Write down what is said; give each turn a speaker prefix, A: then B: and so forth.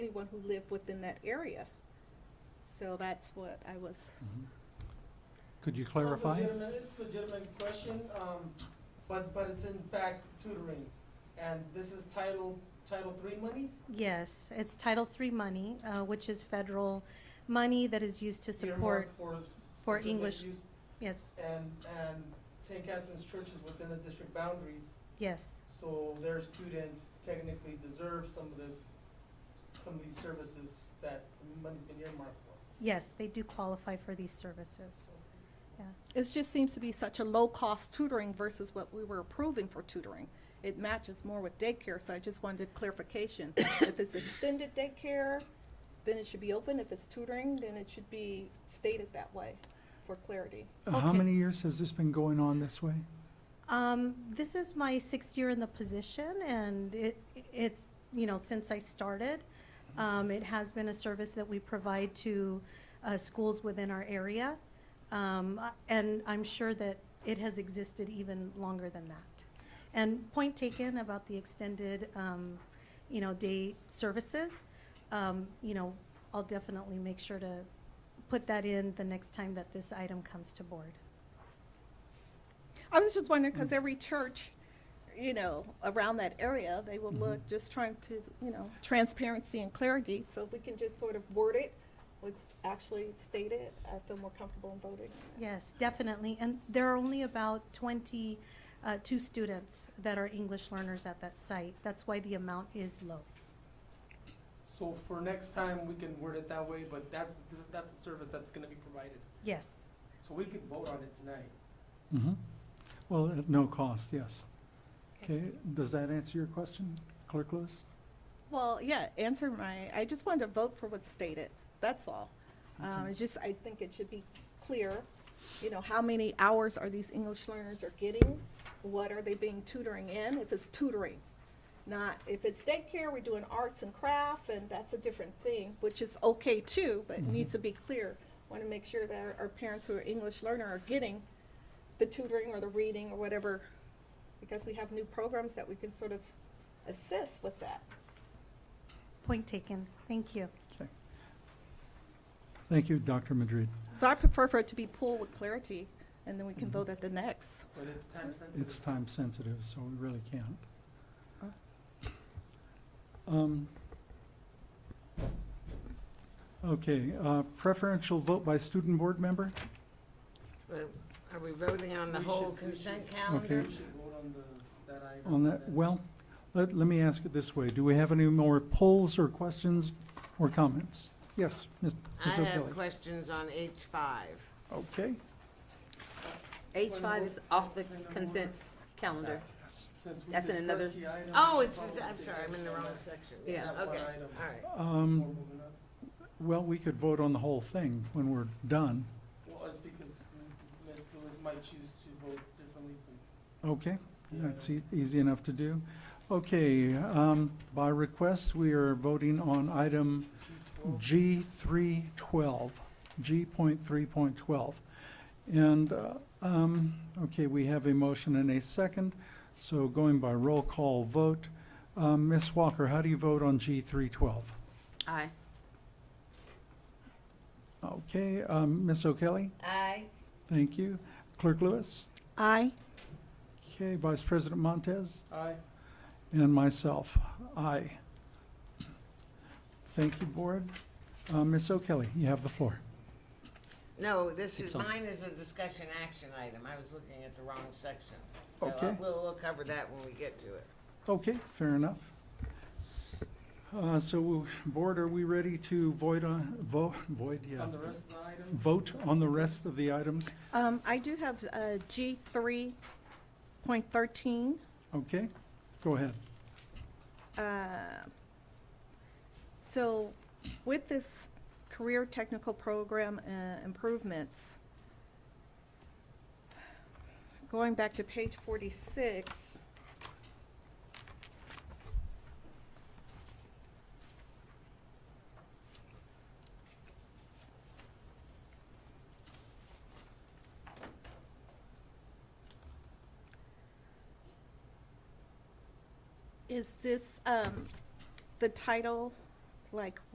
A: everyone who lived within that area. So that's what I was,
B: Mhm. Could you clarify?
C: It's legitimate, it's legitimate question, um, but, but it's in fact tutoring. And this is Title, Title Three monies?
D: Yes, it's Title III money, uh, which is federal money that is used to support,
C: earmarked for
D: for
C: specific
D: English-
C: use.
D: yes,
C: And, and St. Catherine's Church is within the district boundaries,
D: yes,
C: so their students technically deserve some of this, some of these services that money's been earmarked for.
D: yes, they do qualify for these services.
A: it just seems to be such a low-cost tutoring versus what we were approving for tutoring. It matches more with daycare, so I just wanted clarification. If it's extended daycare, then it should be open. If it's tutoring, then it should be stated that way for clarity.
B: How
D: Okay.
B: many years has this been going on this way?
D: Um, this is my sixth year in the position, and it, it's, you know, since I started, um, it has been a service that we provide to, uh, schools within our area. Um, uh, and I'm sure that it has existed even longer than that. And point taken about the extended, um, you know, day services, um, you know, I'll definitely make sure to put that in the next time that this item comes to board.
A: I was just wondering, because every church, you know, around that area, they will look, just trying to, you know, transparency and clarity, so if we can just sort of word it, what's actually stated, I feel more comfortable in voting. on that.
D: Yes, definitely. And there are only about 22 students that are English learners at that site. That's why the amount is low.
C: So for next time, we can word it that way, but that, this, is- that's the service that's gonna be provided.
D: Yes,
C: So we could vote on it tonight.
B: Mhm. Well, at no cost, yes. Okay, does that answer your question, Clerk Lewis?
A: Well, yeah, answer my, I just wanted to vote for what's stated, that's all. Um,
B: Okay.
A: it's just, I think it should be clear, you know, how many hours are these English learners are getting? What are they being tutoring in, if it's tutoring? Not, if it's daycare, we're doing arts and craft, and that's a different thing, which is okay too, but it needs to be clear. Want to make sure that our- our parents who are English learner are getting the tutoring or the reading or whatever, because we have new programs that we can sort of assist with that.
D: point taken. Thank you.
B: Okay. Thank you, Dr. Madrid.
A: So I prefer for it to be pool with clarity, and then we can vote at the next.
C: But it's time sensitive.
B: It's time sensitive, so we really can't. Um, Okay, uh, preferential vote by student board member?
E: Well, Are we voting on the
C: We
E: whole
C: should- we should-
E: consent
B: Okay.
E: calendar?
C: We should vote on the, that item.
B: On that,
C: then.
B: well, let, let me ask it this way. Do we have any more polls or questions or comments? Yes, Ms.
E: I
B: Ms.
E: have
B: O'Kelly.
E: questions on H five.
B: Okay,
F: H five is off the consent calendar.
B: yes.
C: Since we
F: That's in
C: discussed
F: another-
C: the item,
E: Oh, it's,
C: probably
E: I'm sorry, I'm in the wrong section.
F: Yeah.
C: That one
E: Okay,
C: item.
E: all right.
C: before
B: Um,
C: moving on.
B: well, we could vote on the whole thing when we're done.
C: Well, it's because Ms. Lewis might choose to vote differently since.
B: Okay,
C: Yeah.
B: that's e- easy enough to do. Okay, um, by request, we are voting on item G three twelve, G point three point twelve. And, uh, um, okay, we have a motion and a second, so going by roll call vote. Um, Ms. Walker, how do you vote on G three twelve?
F: Aye.
B: Okay, um, Ms. O'Kelly,
E: Aye.
B: thank you. Clerk Lewis?
A: Aye.
B: Okay, Vice President Montez?
C: Aye.
B: And myself, aye. Thank you, Board. Uh, Ms. O'Kelly, you have the floor.
E: No, this is,
B: Six on.
E: mine is a discussion action item. I was looking at the wrong section. So uh,
B: Okay.
E: we'll, we'll cover that when we get to it.
B: Okay, fair enough. Uh, So, Board, are we ready to void, on- vo- void, yeah,
C: On the rest of the items,
B: vote on the rest of the items?
A: Um, I do have, uh, G three point thirteen,
B: Okay, go ahead.
A: uh, so with this career technical program, uh, improvements, going back to page forty-six, is this, um, the title like